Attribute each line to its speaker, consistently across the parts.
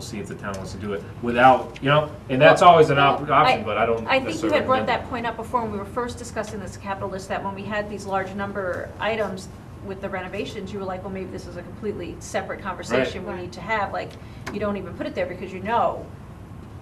Speaker 1: see if the town wants to do it without, you know, and that's always an op-
Speaker 2: Well, I-
Speaker 1: option, but I don't
Speaker 2: I think you
Speaker 1: necessarily
Speaker 2: had brought
Speaker 1: recommend
Speaker 2: that
Speaker 1: that.
Speaker 2: point up before when we were first discussing this capital list, that when we had these large number items with the renovations, you were like, well, maybe this is a completely separate conversation we
Speaker 3: Right.
Speaker 2: need to have, like, you don't even put it there because you know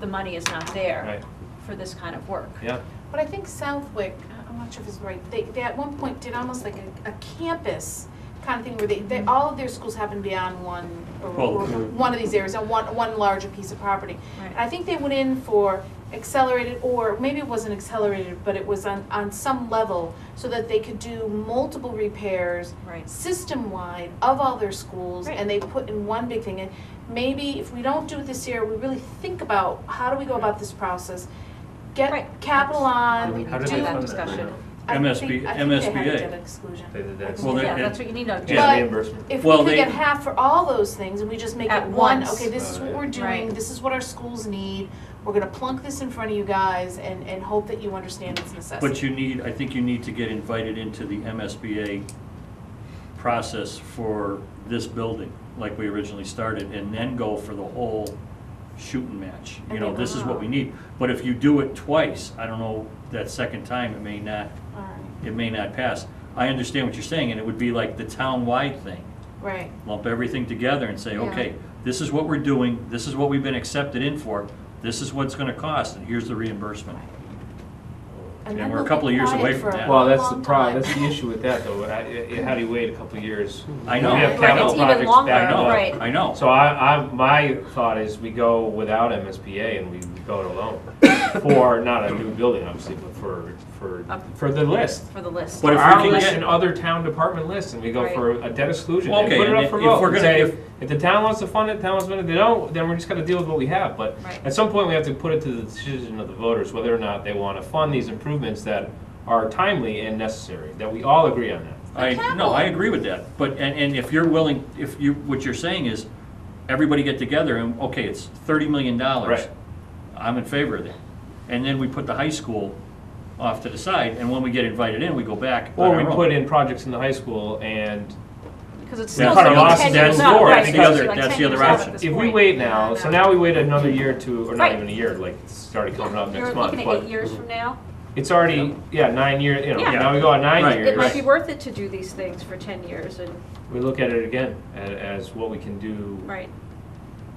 Speaker 2: the money is not there
Speaker 1: Right.
Speaker 2: for this kind of work.
Speaker 1: Yeah,
Speaker 3: But I think Southwick, I- I'm not sure if it's right, they, they at one point did almost like a, a campus kind of thing where they, they, all of their schools happened to be on one, or,
Speaker 1: Well,
Speaker 3: or
Speaker 1: mm.
Speaker 3: one of these areas, on one, one larger piece of property.
Speaker 2: Right.
Speaker 3: I think they went in for accelerated, or maybe it wasn't accelerated, but it was on, on some level, so that they could do multiple repairs
Speaker 2: Right.
Speaker 3: system-wide of all their schools,
Speaker 2: Right.
Speaker 3: and they put in one big thing. And maybe if we don't do it this year, we really think about, how do we go about this process?
Speaker 2: Right.
Speaker 3: Get capital on,
Speaker 2: How
Speaker 3: do.
Speaker 2: Um, we
Speaker 1: how did
Speaker 2: do
Speaker 1: they
Speaker 2: that
Speaker 1: fund that?
Speaker 2: discussion.
Speaker 1: you know?
Speaker 3: I
Speaker 4: MSB
Speaker 3: think- I think they had a
Speaker 4: MSBA.
Speaker 3: debt exclusion.
Speaker 1: They did that.
Speaker 3: I think
Speaker 4: Well,
Speaker 3: they
Speaker 2: Yeah,
Speaker 4: they-
Speaker 3: had.
Speaker 2: that's what you need to do.
Speaker 1: Yeah,
Speaker 3: But-
Speaker 1: reimbursement.
Speaker 3: If we
Speaker 4: Well,
Speaker 3: could
Speaker 4: they-
Speaker 3: get half for all those things, and we just make
Speaker 2: At
Speaker 3: it one,
Speaker 2: once.
Speaker 3: okay, this is what we're doing,
Speaker 2: Right.
Speaker 3: this is what our schools need, we're gonna plunk this in front of you guys and, and hope that you understand its necessity.
Speaker 4: But you need, I think you need to get invited into the MSBA process for this building, like we originally started, and then go for the whole shooting match. You know, this is what we need. But if you do it twice, I don't know, that second time, it may not,
Speaker 3: All right,
Speaker 4: it may not pass. I understand what you're saying, and it would be like the town-wide thing.
Speaker 3: right,
Speaker 4: Lump everything together and say,
Speaker 2: Yeah.
Speaker 4: okay, this is what we're doing, this is what we've been accepted in for, this is what it's gonna cost, and here's the reimbursement.
Speaker 3: and
Speaker 4: And
Speaker 3: then
Speaker 4: we're a
Speaker 3: we'll be
Speaker 4: couple of years
Speaker 3: quiet
Speaker 4: away
Speaker 3: for
Speaker 4: from
Speaker 3: a
Speaker 4: that.
Speaker 1: Well, that's the
Speaker 3: long
Speaker 1: problem,
Speaker 3: time.
Speaker 1: that's the issue with that, though, I- I- how do you wait a couple of years?
Speaker 4: I
Speaker 1: We
Speaker 4: know.
Speaker 1: have
Speaker 4: Right, it's
Speaker 1: capital
Speaker 2: even
Speaker 1: projects
Speaker 2: longer,
Speaker 1: backed up.
Speaker 2: right.
Speaker 4: I know.
Speaker 1: So I, I, my thought is we go without MSBA and we go it alone, for, not a new building, obviously, but for, for,
Speaker 2: Up.
Speaker 1: for the list.
Speaker 2: For the list.
Speaker 4: But if we
Speaker 1: Our
Speaker 4: can
Speaker 1: list
Speaker 4: get-
Speaker 1: and other town department lists, and we go
Speaker 2: Right.
Speaker 1: for a debt exclusion,
Speaker 4: Well,
Speaker 1: and
Speaker 4: okay,
Speaker 1: put it
Speaker 4: and
Speaker 1: up for
Speaker 4: if- if
Speaker 1: vote,
Speaker 4: we're
Speaker 1: and
Speaker 4: gonna-
Speaker 1: say,
Speaker 4: if-
Speaker 1: if the town wants to fund it, the town wants to fund it, if they don't, then we're just gonna deal with what we have, but
Speaker 2: Right.
Speaker 1: at some point, we have to put it to the decision of the voters, whether or not they wanna fund these improvements that are timely and necessary, that we all agree on that.
Speaker 4: I, no, I agree with that, but, and, and if you're willing, if you, what you're saying is, everybody get together and, okay, it's thirty million dollars.
Speaker 1: Right.
Speaker 4: I'm in favor of that. And then we put the high school off to the side, and when we get invited in, we go back. on
Speaker 1: Or we
Speaker 4: our own.
Speaker 1: put in projects in the high school and
Speaker 2: Because it's
Speaker 4: Yeah,
Speaker 2: still
Speaker 4: part
Speaker 2: ten
Speaker 4: of
Speaker 2: years out,
Speaker 4: us,
Speaker 2: right?
Speaker 4: that's the door, that's the
Speaker 2: because
Speaker 4: other-
Speaker 2: you're like
Speaker 4: that's
Speaker 2: 10
Speaker 4: the other
Speaker 2: years out at
Speaker 4: option.
Speaker 2: this
Speaker 1: if we
Speaker 2: point.
Speaker 1: wait now, so now we wait another year or two, or not
Speaker 2: Right.
Speaker 1: even a year, like it's already coming up
Speaker 2: You're
Speaker 1: next month,
Speaker 2: looking at eight
Speaker 1: but
Speaker 2: years from now.
Speaker 1: it's already, yeah, nine years, you know,
Speaker 2: Yeah.
Speaker 1: now we go on
Speaker 4: Right.
Speaker 1: nine years.
Speaker 2: It might
Speaker 4: Right.
Speaker 2: be worth it to do these things for ten years and,
Speaker 1: We look at it again a- as what we can do
Speaker 2: right.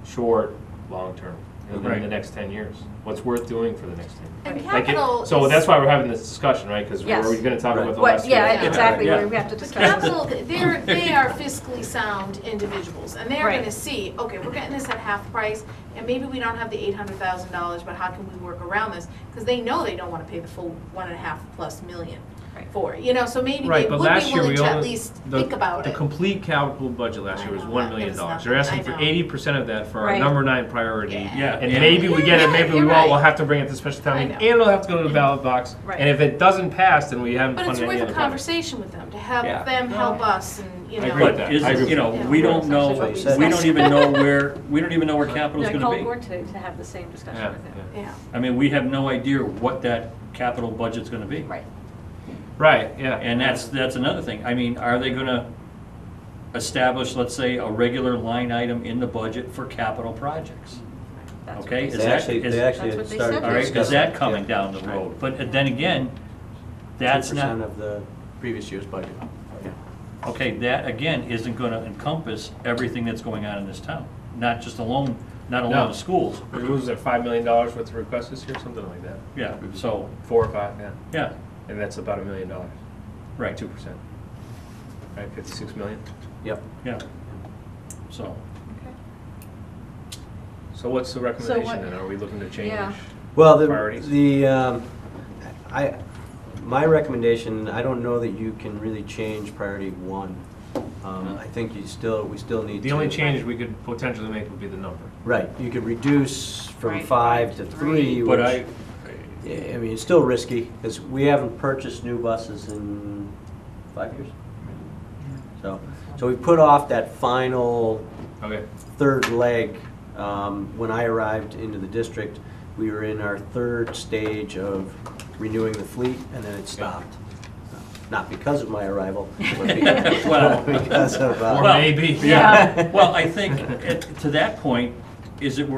Speaker 1: short, long term, within
Speaker 4: Right.
Speaker 1: the next ten years. What's worth doing for the next ten years?
Speaker 3: And
Speaker 1: Like it-
Speaker 3: capital is.
Speaker 1: So that's why we're having this discussion, right? Because we're
Speaker 2: Yes.
Speaker 1: we're gonna talk about the
Speaker 2: What,
Speaker 1: last year.
Speaker 2: yeah,
Speaker 3: Yeah.
Speaker 2: exactly,
Speaker 4: Yeah.
Speaker 2: we have to
Speaker 3: The
Speaker 2: discuss this.
Speaker 3: council, they're, they are fiscally sound individuals, and they're
Speaker 2: Right.
Speaker 3: gonna see, okay, we're getting this at half price, and maybe we don't have the eight hundred thousand dollars, but how can we work around this? Because they know they don't wanna pay the full one and a half plus million
Speaker 2: Right.
Speaker 3: for, it, you know, so maybe they
Speaker 1: Right, but
Speaker 3: would be
Speaker 1: last year
Speaker 3: willing
Speaker 1: we
Speaker 3: to at
Speaker 1: only.
Speaker 3: least
Speaker 1: the-
Speaker 3: think about
Speaker 1: The
Speaker 3: it.
Speaker 1: complete capital budget last year was
Speaker 3: I know,
Speaker 1: one
Speaker 3: that
Speaker 1: million
Speaker 3: is
Speaker 1: dollars.
Speaker 3: nothing.
Speaker 1: They're asking
Speaker 3: I
Speaker 1: for
Speaker 3: know.
Speaker 1: eighty percent of that for our
Speaker 2: Right.
Speaker 1: number nine priority.
Speaker 4: Yeah.
Speaker 1: And maybe we get it, maybe we
Speaker 3: You're
Speaker 1: won't,
Speaker 3: right.
Speaker 1: we'll have to bring it to the special town
Speaker 3: I
Speaker 1: meeting,
Speaker 3: know. Mm-hmm.
Speaker 1: and it'll have to go to the ballot box.
Speaker 2: Right.
Speaker 1: And if it doesn't pass, then we haven't
Speaker 3: But it's
Speaker 1: funded any
Speaker 3: worth a
Speaker 1: other projects.
Speaker 3: conversation with them, to have
Speaker 1: Yeah.
Speaker 3: them help us and, you
Speaker 1: I
Speaker 3: know.
Speaker 1: agree with
Speaker 4: But
Speaker 1: that. I agree
Speaker 4: is,
Speaker 1: with
Speaker 4: you know,
Speaker 3: that.
Speaker 4: we don't
Speaker 3: Yeah.
Speaker 4: know,
Speaker 3: That's
Speaker 5: what
Speaker 4: we
Speaker 5: you
Speaker 4: don't
Speaker 2: said.
Speaker 4: even know where, we don't even know where capital's
Speaker 2: I
Speaker 4: gonna
Speaker 2: called
Speaker 4: be.
Speaker 2: Ward today to have the same discussion
Speaker 1: Yeah,
Speaker 2: with him.
Speaker 1: yeah.
Speaker 3: Yeah,
Speaker 4: I mean, we have no idea what that capital budget's gonna be.
Speaker 2: Right,
Speaker 1: Right, yeah.
Speaker 4: And that's, that's another thing. I mean, are they gonna establish, let's say, a regular line item in the budget for capital projects?
Speaker 2: that's
Speaker 4: Okay,
Speaker 2: what
Speaker 4: is
Speaker 5: They
Speaker 4: that-
Speaker 5: actually,
Speaker 4: is-
Speaker 5: they actually
Speaker 2: That's what
Speaker 5: had
Speaker 2: they
Speaker 5: started.
Speaker 2: said.
Speaker 4: All right, is
Speaker 5: discussing
Speaker 4: that
Speaker 5: it,
Speaker 4: coming
Speaker 5: yeah.
Speaker 4: down the road? But uh, then again, that's
Speaker 5: 2%
Speaker 4: not,
Speaker 5: of the previous year's budget. Yeah.
Speaker 4: okay, that again isn't gonna encompass everything that's going on in this town. Not just alone, not
Speaker 1: No.
Speaker 4: alone the schools,
Speaker 1: We lose at five million dollars worth of requests this year, something like that.
Speaker 4: yeah, so,
Speaker 1: Four or five, yeah.
Speaker 4: yeah,
Speaker 1: And that's about a million dollars,
Speaker 4: right,
Speaker 1: two percent. Right, fifty-six million.
Speaker 5: Yep.
Speaker 4: yeah. So,
Speaker 1: So what's the
Speaker 2: what-
Speaker 1: recommendation then? Are we looking to
Speaker 2: Yeah.
Speaker 1: change?
Speaker 5: Well, the,
Speaker 1: Priorities.
Speaker 5: the, um, I, my recommendation, I don't know that you can really change priority one. Um, I think you still, we still need to.
Speaker 1: The only change we could potentially make would be the number.
Speaker 5: Right, you could reduce from
Speaker 2: Right.
Speaker 5: five to
Speaker 2: Three.
Speaker 5: three,
Speaker 4: but
Speaker 5: which,
Speaker 4: I,
Speaker 5: I mean, it's still risky, because we haven't purchased new buses in five years. So, so we put off that final
Speaker 1: Okay.
Speaker 5: third leg. Um, When I arrived into the district, we were in our third stage of renewing the fleet, and then it stopped. Not because of my arrival, but because
Speaker 4: Well-
Speaker 5: because of,
Speaker 1: Or
Speaker 5: uh,
Speaker 4: Well,
Speaker 1: maybe.
Speaker 4: yeah, well, I think, at- to that point, is it worth